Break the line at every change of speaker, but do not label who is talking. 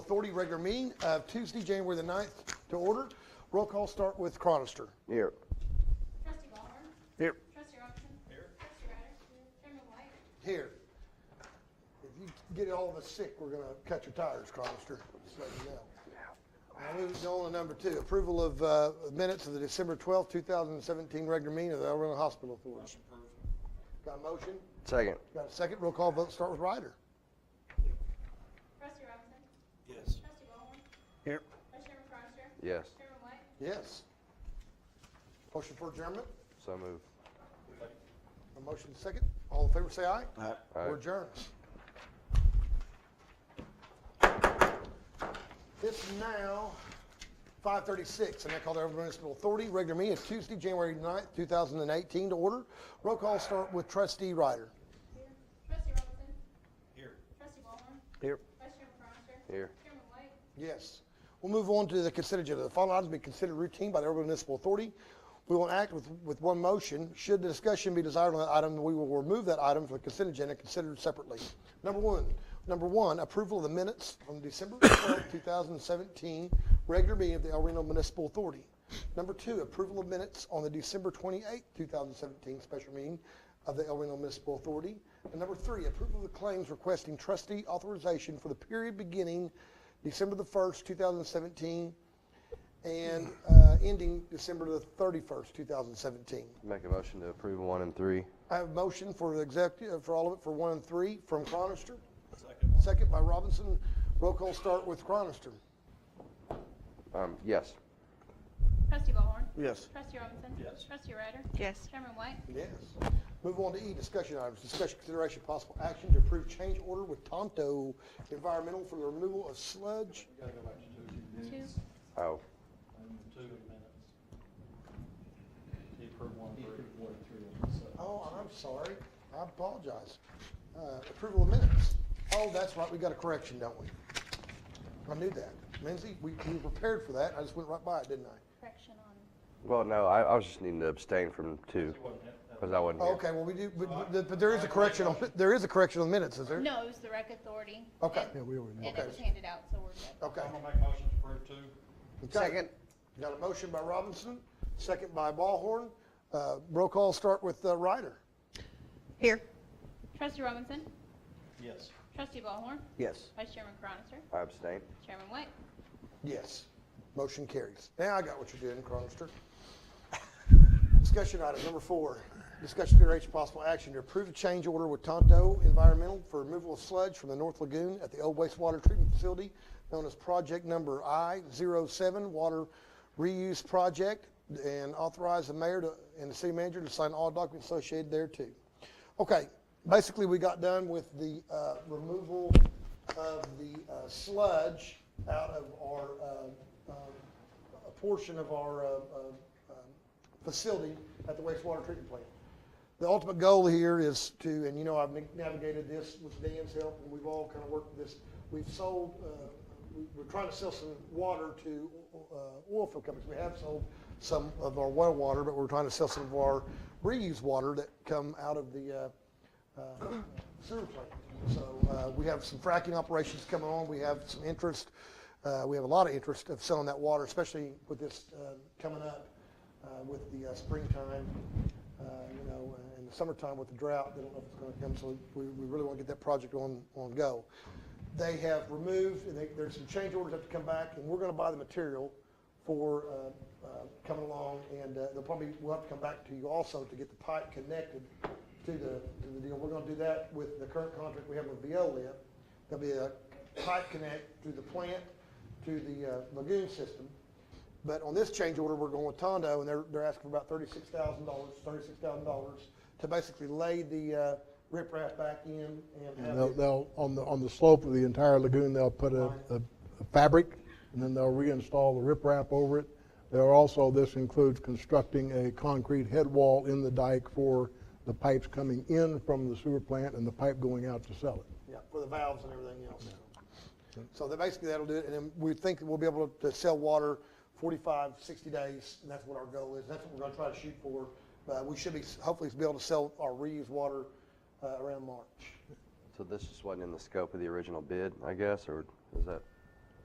Authority regular meeting of Tuesday, January the 9th to order. Roll call start with Cronister.
Here.
Trustee Ballhorn.
Here.
Trustee Robinson. Here. Trustee Ryder. Chairman White.
Here. If you get all of us sick, we're gonna cut your tires, Cronister, just let you know. Now, moving on to number two, approval of uh, minutes of the December 12th, 2017 regular meeting of the El Reno Hospital Authority. Got a motion?
Second.
Got a second? Roll call vote start with Ryder.
Trustee Robinson.
Yes.
Trustee Ballhorn.
Here.
Vice Chairman Cronster.
Yes,
Chairman White.
Yes. Motion for adjournment?
so move.
A motion second? All in favor, say aye.
Aye.
We're
Aye.
adjourned. It's now five thirty-six, and I call the Everett Municipal Authority regular meeting of Tuesday, January 9th, two thousand and eighteen to order. Roll call start with trustee Ryder.
Here. Trustee Robinson.
Here.
Trustee Ballhorn.
Here.
Vice Chairman Cronster.
Here.
Chairman White.
Yes. We'll move on to the consent agenda. The following items be considered routine by the Urban Municipal Authority. We will act with, with one motion. Should the discussion be desired on that item, we will remove that item from the consent agenda and consider it separately. Number one, number one, approval of the minutes from December 12, 2017, regular meeting of the El Reno Municipal Authority. Number two, approval of minutes on the December 28, 2017 special meeting of the El Reno Municipal Authority. And number three, approval of the claims requesting trustee authorization for the period beginning December the 1st, 2017, and uh, ending December the 31st, 2017.
Make a motion to approve one and three.
I have a motion for the executive, uh, for all of it, for one and three, from Cronister.
Second.
Second by Robinson. Roll call start with Cronister.
Um, yes.
Trustee Ballhorn.
Yes.
Trustee Robinson.
Yes.
Trustee Ryder.
Yes.
Chairman White.
Yes. Move on to E, discussion items. Discussion consideration possible action to approve change order with Tonto Environmental for the removal of sludge.
Gotta go back to two
Two.
Oh,
And the two minutes. He approved one, three. one, three.
Oh, I'm sorry. I apologize. Uh, Approval of minutes. Oh, that's right, we got a correction, don't we? I knew that. Lindsay, we we prepared for that. I just went right by it, didn't I?
Correction on.
well, no, I, I was just needing to abstain from two, because I wasn't
Oh,
here.
Okay, well, we do, but- but but there is a correction on, there is a correction on minutes, is there?
No, it was the rec authority.
Okay.
And-
Yeah, we already know.
And it was handed out, so we're good.
Okay.
I'm gonna make a motion to approve two.
Okay. Got a motion by Robinson, second by Ballhorn. Uh, Roll call start with uh, Ryder.
Here.
Trustee Robinson.
Yes.
Trustee Ballhorn.
Yes.
Vice Chairman Cronster.
I abstain.
Chairman White.
Yes. Motion carries. Now I got what you're doing, Cronister. Discussion item number four. Discussion consideration possible action to approve a change order with Tonto Environmental for removal of sludge from the North Lagoon at the old wastewater treatment facility known as project number I-07 Water Reuse Project and authorize the mayor to- and the city manager to sign all documents associated thereto. Okay, basically, we got done with the uh, removal of the uh, sludge out of our, uh, uh, a portion of our uh, uh, uh, facility at the wastewater treatment plant. The ultimate goal here is to, and you know, I've navigated this with Dan's help, and we've all kind of worked this. We've sold, uh, we- we're trying to sell some water to uh, oil field companies. We have sold some of our well water, but we're trying to sell some of our reuse water that come out of the uh, uh, sewer plant. So uh, we have some fracking operations coming on. We have some interest. uh, We have a lot of interest of selling that water, especially with this uh, coming up uh, with the uh, springtime, uh, you know, uh, in the summertime with the drought, they don't know if it's going to come, so we, we really want to get that project on, on go. They have removed, and they, there's some change orders that have to come back, and we're going to buy the material for, uh, uh, coming along, and, uh, they'll probably, we'll have to come back to you also to get the pipe connected to the, to the deal. We're going to do that with the current contract we have with Veolia. There'll be a pipe connect to the plant, to the uh, lagoon system. But on this change order, we're going with Tondo, and they're, they're asking for about thirty-six thousand dollars, thirty-six thousand dollars to basically lay the uh, riprap back in and have
And They'll,
it.
they'll, on the, on the slope of the entire lagoon, they'll put a, a a fabric, and then they'll reinstall the riprap over it. There are also, this includes constructing a concrete head wall in the dike for the pipes coming in from the sewer plant and the pipe going out to sell it.
Yeah, for the valves and everything else. So that basically that'll do it, and then we think that we'll be able to sell water 45, 60 days, and that's what our goal is. That's what we're gonna try to shoot for. Uh, we should be, hopefully be able to sell our reused water, uh, around March.
So this just wasn't in the scope of the original bid, I guess, or is that?